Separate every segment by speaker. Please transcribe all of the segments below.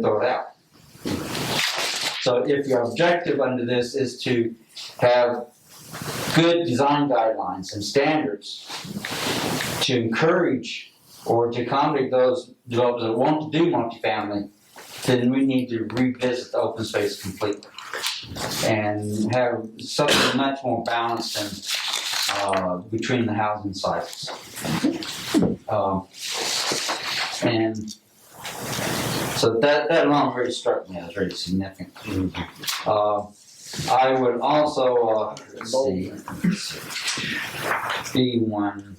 Speaker 1: throw it out. So if your objective under this is to have good design guidelines and standards to encourage or to accommodate those developers that want to do multifamily, then we need to revisit the open space completely and have something much more balanced and uh, between the housing cycles. Um, and so that, that alone really struck me as very significant. Uh, I would also, uh, let's see, B one.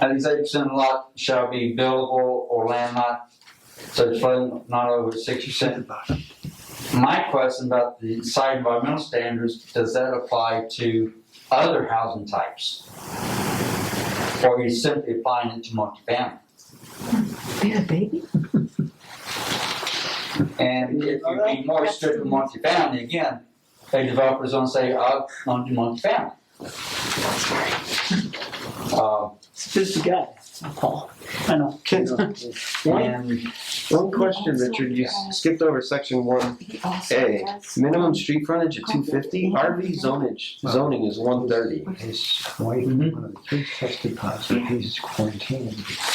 Speaker 1: At least eight percent lot shall be buildable or land lot, so it's flooding not over six percent. My question about the site environmental standards, does that apply to other housing types? Or are you simply applying it to multifamily?
Speaker 2: Yeah, baby.
Speaker 1: And if you be more strict with multifamily, again, a developer's gonna say, "Ah, I want to do multifamily. Uh,
Speaker 3: This guy, Paul. I know.
Speaker 4: Ken, one,
Speaker 1: and
Speaker 4: one question, Richard, you skipped over section one.
Speaker 2: He also
Speaker 4: Hey.
Speaker 2: has-
Speaker 4: Minimum street frontage at two fifty, RV zonage, zoning is one thirty.
Speaker 5: His wife,
Speaker 1: Mhm.
Speaker 5: one of the kids tested positive, he's quarantined.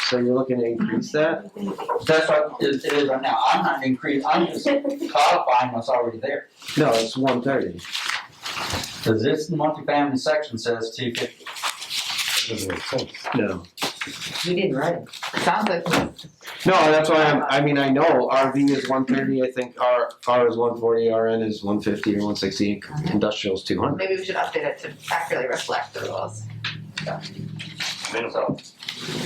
Speaker 4: So you're looking to increase that?
Speaker 1: that's what it it is right now, I'm not increasing, I'm just codifying what's already there.
Speaker 4: No, it's one thirty.
Speaker 1: Cause this multifamily section says two fifty,
Speaker 4: No.
Speaker 2: You didn't write it. Sounds like.
Speaker 4: No, that's why I'm, I mean, I know RV is one thirty, I think R, R is one forty, RN is one fifty or one sixty, industrial is two hundred.
Speaker 2: Maybe we should update it to accurately reflect the rules.
Speaker 1: so.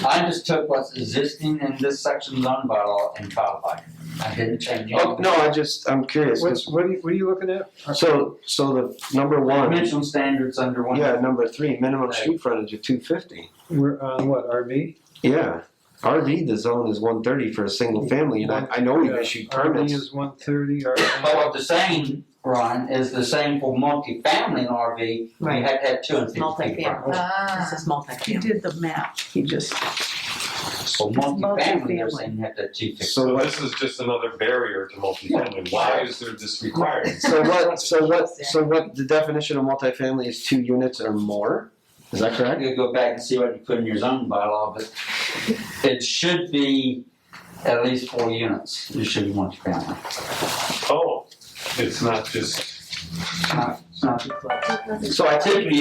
Speaker 1: I just took what's existing in this section zone bylaw and codified it, I didn't change
Speaker 4: Oh,
Speaker 1: anything.
Speaker 4: no, I just, I'm curious, 'cause-
Speaker 5: What's, what are you, what are you looking at?
Speaker 4: so, so the number one,
Speaker 1: Dimensional standards under one.
Speaker 4: yeah, number three, minimum street frontage of two fifty.
Speaker 5: We're um, on what, RV?
Speaker 4: Yeah, RV, the zone is one thirty for a single family, and I, I know we've
Speaker 5: Yeah,
Speaker 4: issued
Speaker 5: RV
Speaker 4: permits.
Speaker 5: is one thirty, RV.
Speaker 1: But what the same run is the same for multifamily and RV, you
Speaker 6: Right.
Speaker 1: had to have two and fifty feet.
Speaker 6: Multifamily. This
Speaker 2: Ah,
Speaker 6: is
Speaker 3: He
Speaker 6: multifamily.
Speaker 3: did the map. He just.
Speaker 1: For multifamily, they're
Speaker 3: Multifamily.
Speaker 1: saying you have to have two fifty.
Speaker 4: So
Speaker 7: So
Speaker 4: what,
Speaker 7: this is just another barrier to multifamily. Why is there this requirement?
Speaker 4: so what, so what, so what, the definition of multifamily is two units or more? Is that
Speaker 1: I
Speaker 4: correct?
Speaker 1: could go back and see what you put in your zoning bylaw, but it should be at least four units, it should be multifamily.
Speaker 7: Oh, it's not just,
Speaker 1: It's not-
Speaker 4: So I think,
Speaker 1: Typically,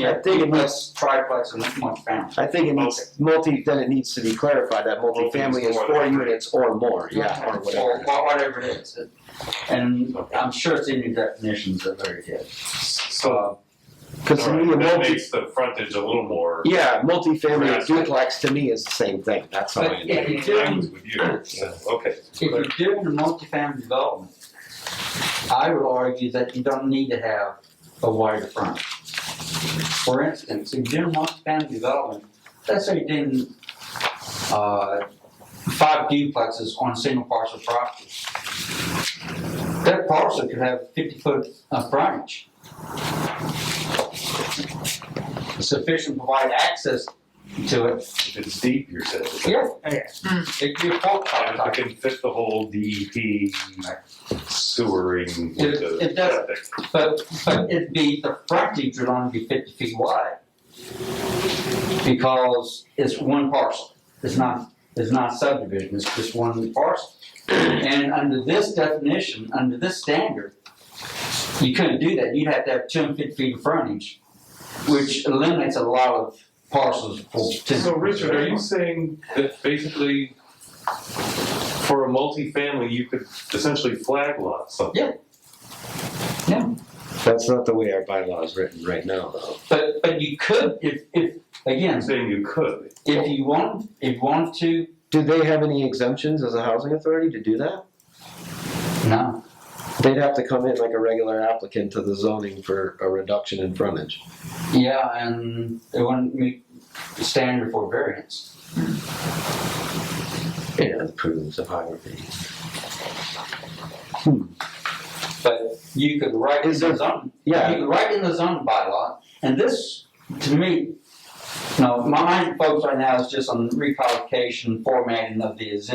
Speaker 1: yeah,
Speaker 4: I think it
Speaker 1: duplex, triplex, and multifamily.
Speaker 4: I think it needs, multi, then it needs to be clarified that multifamily is four units or more, yeah, or
Speaker 1: Or
Speaker 4: whatever.
Speaker 1: wha- whatever it is, It- and I'm sure it's in your definitions, they're very good.
Speaker 7: so,
Speaker 4: Cause to me, a
Speaker 7: alright, that
Speaker 4: multi,
Speaker 7: makes the frontage a little more.
Speaker 4: yeah, multifamily or duplex to me is the same thing, that's all.
Speaker 1: But
Speaker 4: I-
Speaker 1: if you
Speaker 7: I
Speaker 1: do,
Speaker 7: was with you, yeah, okay.
Speaker 1: If you're doing a multifamily development, I would argue that you don't need to have a wider front. For instance, if you're doing multifamily development, let's say you're doing, uh, five duplexes on a single parcel property. That parcel could have fifty foot of frontage. Sufficient to provide access to it,
Speaker 7: If It's deep, you're saying.
Speaker 1: yeah. It could be a four car
Speaker 7: And
Speaker 1: type.
Speaker 7: I can fit the whole DEP sewering with the
Speaker 1: It- it does.
Speaker 7: septic.
Speaker 1: But, but it'd be, the frontage would only be fifty feet wide. Because it's one parcel, it's not, it's not subdivision, it's just one parcel. And under this definition, under this standard, you couldn't do that, you'd have to have two hundred fifty feet of frontage, which eliminates a lot of parcels for.
Speaker 7: So Richard, are you saying that basically for a multifamily, you could essentially flag lot something?
Speaker 4: That's not the way our bylaw is written right now, though.
Speaker 1: But, but you could, if, if,
Speaker 7: I'm
Speaker 1: again,
Speaker 7: saying you could.
Speaker 1: if you want, if you want to,
Speaker 4: Do they have any exemptions as a housing authority to do that?
Speaker 1: no.
Speaker 4: They'd have to come in like a regular applicant to the zoning for a reduction in frontage.
Speaker 1: Yeah, and it wouldn't meet the standard for variance.
Speaker 4: Yeah, the prudence of hierarchy.
Speaker 1: But you could write in
Speaker 4: Is
Speaker 1: the
Speaker 4: there-
Speaker 1: zone, you
Speaker 4: Yeah,
Speaker 1: could write in the zone bylaw, and this, to me, Now, my mind focus right now is just on requalification, formatting of the existing